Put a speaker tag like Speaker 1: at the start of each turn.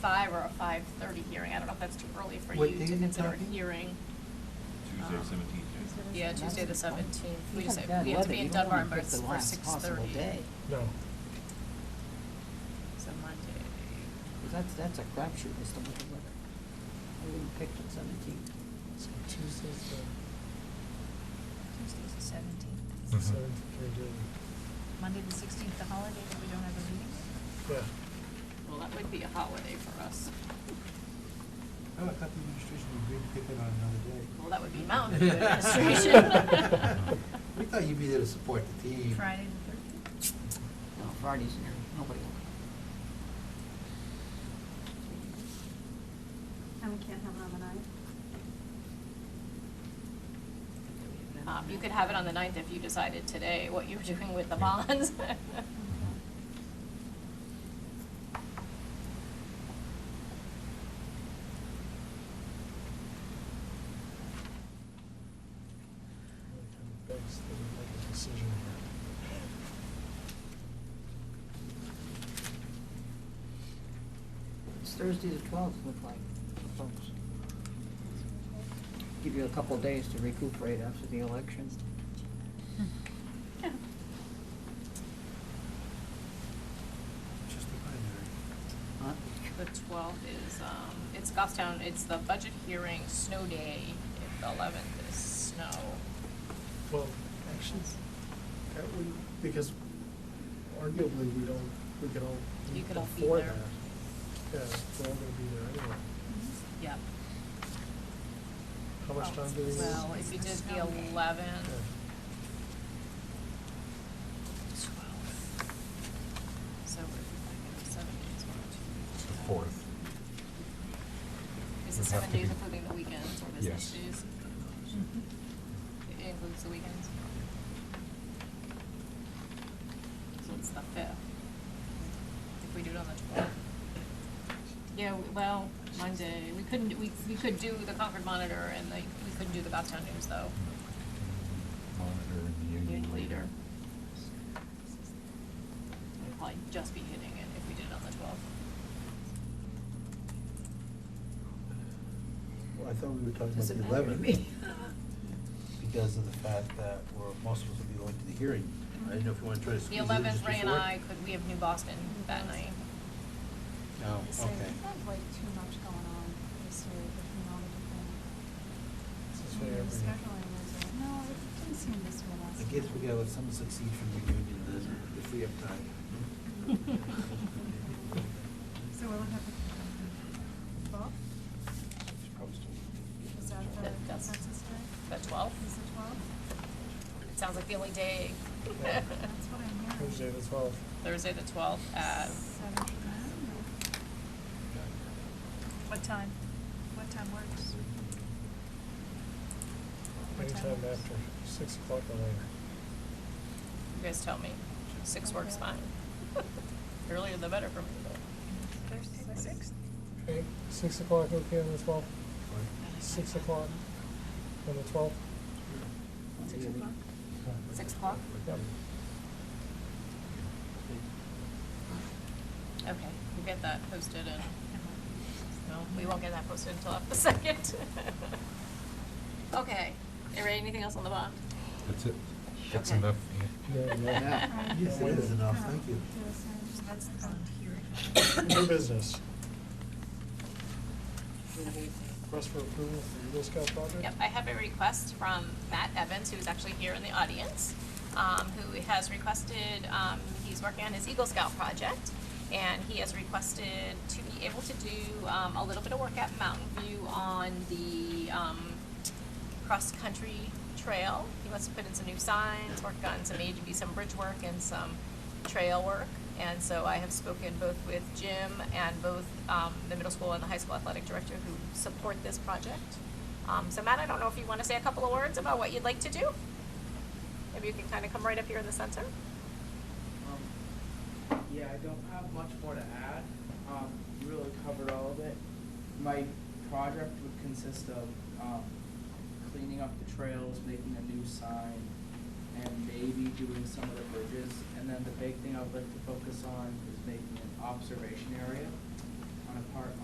Speaker 1: five or a five-thirty hearing. I don't know if that's too early for
Speaker 2: What
Speaker 1: you
Speaker 2: day
Speaker 1: to
Speaker 2: are you
Speaker 1: consider
Speaker 2: talking?
Speaker 1: a hearing.
Speaker 3: Tuesday,
Speaker 1: Um,
Speaker 3: seventeenth.
Speaker 1: Yeah, Tuesday the
Speaker 4: That's fine.
Speaker 1: seventeenth. We
Speaker 4: You
Speaker 1: just,
Speaker 4: have
Speaker 1: have-
Speaker 4: bad
Speaker 1: we have to
Speaker 4: weather,
Speaker 1: be in
Speaker 4: you don't wanna
Speaker 1: Dunbar, but
Speaker 4: pick
Speaker 1: it's
Speaker 4: the
Speaker 1: for
Speaker 4: last
Speaker 1: six
Speaker 4: possible
Speaker 1: thirty.
Speaker 4: day.
Speaker 2: No.
Speaker 1: So Monday.
Speaker 4: 'Cause That's, that's a crapshoot, Mr. Motherfucker. I wouldn't pick the seventeenth.
Speaker 5: So Tuesday's
Speaker 6: Tuesday's the
Speaker 5: the
Speaker 6: seventeenth.
Speaker 2: Mhm.
Speaker 5: seventh, we're doing,
Speaker 6: Monday the sixteenth, the holiday that we don't have a meeting.
Speaker 5: yeah.
Speaker 1: Well, that would be a holiday for us.
Speaker 2: Oh, I thought the administration agreed to take that on another day.
Speaker 1: Well, that would be Mountain View administration.
Speaker 2: We thought you'd be there to support the team.
Speaker 6: Friday the thirteenth.
Speaker 4: No, Friday's near, nobody will come.
Speaker 7: And we can't have it on the ninth?
Speaker 1: Um, you could have it on the ninth if you decided today what you were doing with the bonds.
Speaker 5: Like, I'm vexed that we make a decision here.
Speaker 4: It's Thursday the twelfth, look like, for folks. Give you a couple of days to recuperate after the election.
Speaker 2: Just a binary.
Speaker 4: Huh?
Speaker 1: The twelfth is, um, it's Goffstown, it's the budget hearing, snow day, If the eleventh is snow.
Speaker 5: Well, actually, that would, because arguably we don't, we could all
Speaker 1: You
Speaker 5: meet
Speaker 1: could all be
Speaker 5: before that.
Speaker 1: there.
Speaker 5: Yeah, we're all gonna be there anyway.
Speaker 1: Yep.
Speaker 5: How much time do we need?
Speaker 1: Well, if you did the
Speaker 6: Snow day.
Speaker 1: eleventh,
Speaker 5: Yeah.
Speaker 1: twelve. So we're like seven days, one, two.
Speaker 8: It's the
Speaker 1: three, four.
Speaker 8: fourth.
Speaker 1: Is it
Speaker 8: Would have
Speaker 1: seven
Speaker 8: to
Speaker 1: days
Speaker 8: be-
Speaker 1: including the weekends or business
Speaker 8: Yes.
Speaker 1: days?
Speaker 6: Mm-hmm.
Speaker 1: It includes the weekends. So it's the fifth. If we do it on the twelfth. Yeah, we- well, Monday, we couldn't, we, we could do the Concord Monitor and like, we couldn't do the Goffstown News though.
Speaker 8: Monitor and the
Speaker 1: Union leader.
Speaker 8: union leader.
Speaker 1: We'd probably just be hitting it if we did it on the twelfth.
Speaker 2: Well, I thought we were talking about
Speaker 4: Doesn't
Speaker 2: the
Speaker 4: matter to
Speaker 2: eleventh
Speaker 4: me.
Speaker 2: because of the fact that we're, most of us will be going to the hearing. I didn't know if you want to try to
Speaker 1: The
Speaker 2: squeeze it in just
Speaker 1: eleventh, Ray and
Speaker 2: before.
Speaker 1: I could, we have New Boston that night.
Speaker 2: Oh,
Speaker 7: So
Speaker 2: okay.
Speaker 7: we've had way too much going on this year between all the different.
Speaker 5: This way
Speaker 7: Mm,
Speaker 5: every-
Speaker 7: Scheduling was, uh, no, it didn't seem this way last
Speaker 2: I
Speaker 7: year.
Speaker 2: guess we gotta let someone succeed from the union then, if we have time.
Speaker 7: So we'll have it, Bob, is that the
Speaker 1: That- that's-
Speaker 7: consensus day?
Speaker 1: The twelfth,
Speaker 7: Is it twelve?
Speaker 1: it sounds like the only day.
Speaker 5: Yeah.
Speaker 7: That's what I'm hearing.
Speaker 5: Tuesday the twelfth.
Speaker 1: Thursday the twelfth
Speaker 2: Uh,
Speaker 1: at,
Speaker 7: Seven to nine,
Speaker 6: What time? What time works? What time
Speaker 5: Anytime
Speaker 6: works?
Speaker 5: after six o'clock or later.
Speaker 1: you guys tell me, six works
Speaker 7: Okay.
Speaker 1: fine. Earlier the better for me.
Speaker 6: Thursday the sixth?
Speaker 5: Okay, six o'clock, okay, on the twelfth? Six o'clock on the twelfth?
Speaker 6: Six o'clock?
Speaker 1: Six o'clock?
Speaker 5: Yep.
Speaker 1: Okay, we'll get that posted and, no, we won't get that posted until after the second. Okay, Ray, anything else on the bond?
Speaker 8: That's it. That's
Speaker 1: Okay.
Speaker 8: enough.
Speaker 5: Yeah, yeah.
Speaker 7: right?
Speaker 2: Yes, it is enough, thank you.
Speaker 7: Do the same.
Speaker 6: That's the
Speaker 1: um,
Speaker 6: bond hearing.
Speaker 5: New business. Request for approval for Eagle Scout project?
Speaker 1: Yep, I have a request from Matt Evans, who's actually here in the audience, um, who has requested, um, he's working on his Eagle Scout project, and he has requested to be able to do, um, a little bit of work at Mountain View on the, um, cross-country trail. He wants to put in some new signs, work on some AGB, some bridge work and some trail work. And so I have spoken both with Jim and both um, the middle school and the high school athletic director who support this project. Um, So Matt, I don't know if you want to say a couple of words about what you'd like to do? Maybe you can kind of come right up here in the center.
Speaker 9: Um, Yeah, I don't have much more to add. Um, you really covered all of it. My project would consist of, um, cleaning up the trails, making a new sign, and maybe doing some of the bridges. And then the big thing I would like to focus on is making an observation area on a part